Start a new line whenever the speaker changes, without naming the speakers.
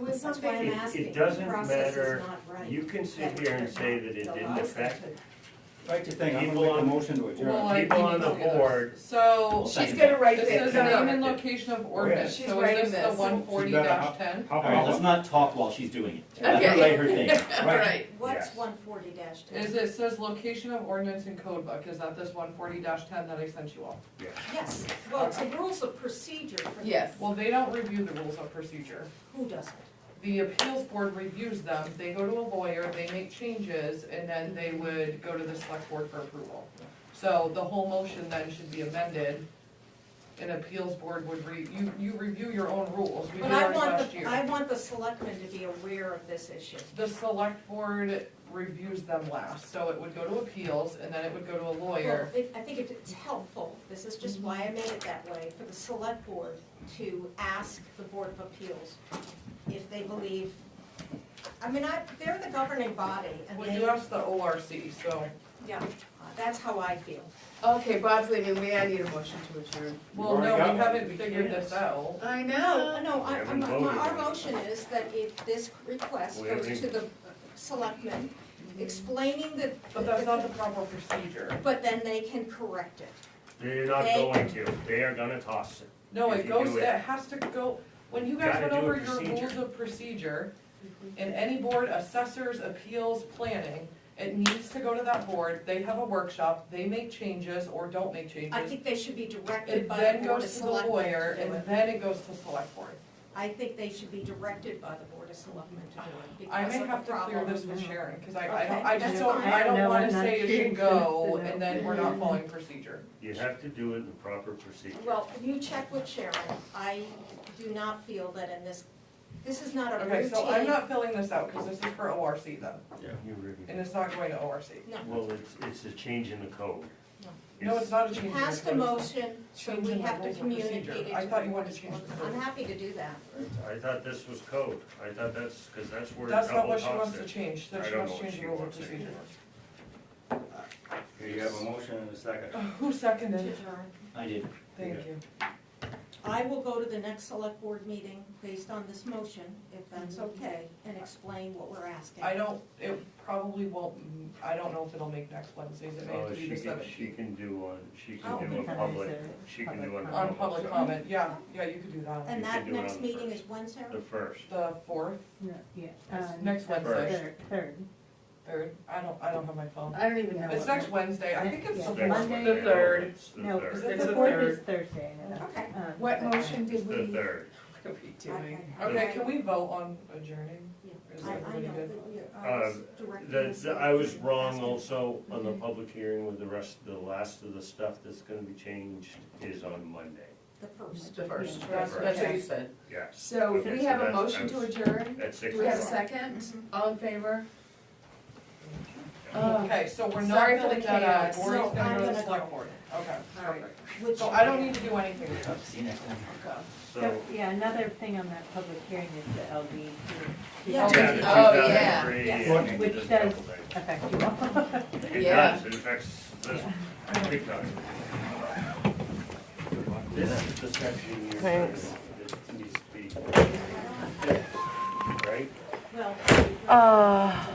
Well,
That's why I'm
it- it
asking. The
doesn't
process is
matter.
not right.
You can sit here and say that it didn't affect
Write your thing, I'm gonna
People
make a
on-
motion to
Well,
adjourn.
I-
people on the board.
So,
She's
She's gonna write
this
that
is
a-
name
down.
and location of ordinance,
She's
so
writing
is this
this.
the one forty ten?
How
All right, let's
about,
not talk while she's doing it. Let her
Okay.
lay her thing.
right,
What's
Yes.
one forty dash ten?
Is it says location of ordinance in code book, is that this one forty ten that I sent you all?
Yes, well, it's the rules of procedure for.
Yes.
Well, they don't review the rules of procedure.
Who doesn't?
The appeals board reviews them, they go to a lawyer, they make changes, and then they would go to the select board for approval. So the whole motion then should be amended, and appeals board would re, you, you review your own rules, we did
But I
ours
want
last
the,
year.
I want the selectmen to be aware of this issue.
The select board reviews them last, so it would go to appeals, and then it would go to a
Well,
lawyer.
it- I think it- it's helpful, this is just why I made it that way, for the select board to ask the Board of Appeals if they believe, I mean, I, they're the governing body, and
Well,
they,
you asked the ORC, so.
yeah, that's how I feel.
Okay, Bob's leaving, we, I need a motion to adjourn.
Well,
already got
no, we
one.
haven't figured this out.
I
Uh,
Uh,
No, no,
We
I-
haven't
I'm- my- our
voted.
motion is that if this request
We
goes
haven't-
to the selectmen, explaining the.
But that's not the proper procedure.
But then they can correct it.
They're not
They-
going to, they are gonna toss it.
No,
If
it
you
goes,
do it-
it has to go, when you guys
Gotta
went
do a
over your
procedure.
rules of procedure, in any board, assessors, appeals, planning, it needs to go to that board, they have a workshop, they make changes or don't make
I
changes.
think they should be directed
It
by
then
the Board of
goes to the
Selectmen.
lawyer,
to do
and
it.
then it goes to select board.
I think they should be directed by the Board of Selectmen to do it
I
because
may
of
have
the
to clear
problem.
this with Sharon, cause I, I don't,
Okay,
I just
that's
don't,
fine.
I
I
don't
know,
wanna
I'm not
say it should
sure
go,
it's
and then we're not following procedure.
You have to do it in the proper procedure.
Well, you check with Sharon. I do not feel that in this, this is not a
Okay, so I'm
routine.
not filling this out, cause this is for ORC then,
You really-
and it's not going to ORC.
Well, it's, it's a change in the code.
No, it's not a change. in the
Past a
code.
motion, so we
Changing the
have to
rules of procedure.
communicate it to
I
the
thought you
Board
wanted
of
to change the
Selectmen.
code.
I'm happy to do that.
I thought this was code, I thought that's, cause that's where
That's not
double
what she
tossed
wants to
it.
change,
I
that she
don't
wants
know
to
what
change
she
the rules of
wants
procedure.
anymore.
here you have a motion and a second.
Uh, Who seconded?
Adjourn.
I did.
Thank you.
I will go to the next select board meeting based on this motion, if that's okay, and explain what we're asking.
I don't, it probably won't, m- I don't know if it'll make next Wednesday's, it may have
Oh,
to be
she
the
can, she
seventeenth.
can do on, she
Oh,
can do a
okay.
public, she can do on.
On public
comment.
comment, yeah, yeah, you could do that.
And
You
that
can do it
next
on the
meeting is
first.
Wednesday?
The first.
The fourth,
No, yeah.
It's
um,
next Wednesday.
Third, third.
third, I don't, I don't have my phone.
I don't even know.
It's
what-
next Wednesday, I think it's
Yeah.
the
Next
fourth.
Monday.
Monday.
The
third.
It's the
No,
third.
Is it
the
the
fourth
third?
is Thursday, I know.
Okay.
Um,
What motion
It's
did
the
we, what
third.
are we doing?
Okay, can we vote on adjourning?
Yeah. I,
Is that
I
what you
know
did?
that you're, I
Uh,
was
Um,
directing
The,
this
the- I was
to
wrong
asking-
also on the public hearing with the rest, the last of the stuff that's gonna be changed is on Monday.
The first.
The first,
That's-
that's what you said.
Yes,
So
Okay,
we
so
have a
that's-
motion to adjourn,
at six
do we have a
o'clock.
second?
Mm-hmm.
All in favor? Oh,
Okay, so we're not
Sorry for
filling
the
that
chaos.
out, we're
No,
going
I'm
to the
gonna
select
go.
board, okay.
all right,
Which-
So I don't need to do anything with this.
See you next time.
So,
So, yeah, another thing on that public hearing is the LD two.
Yeah.
yeah, the two
Oh, yeah.
thousand three
Yes.
and.
Which
just a
does-
couple things.
Affect you all.
It
Yeah.
does, it affects this big time. This is the section here that needs to be, fixed, right?
Well,
Uh,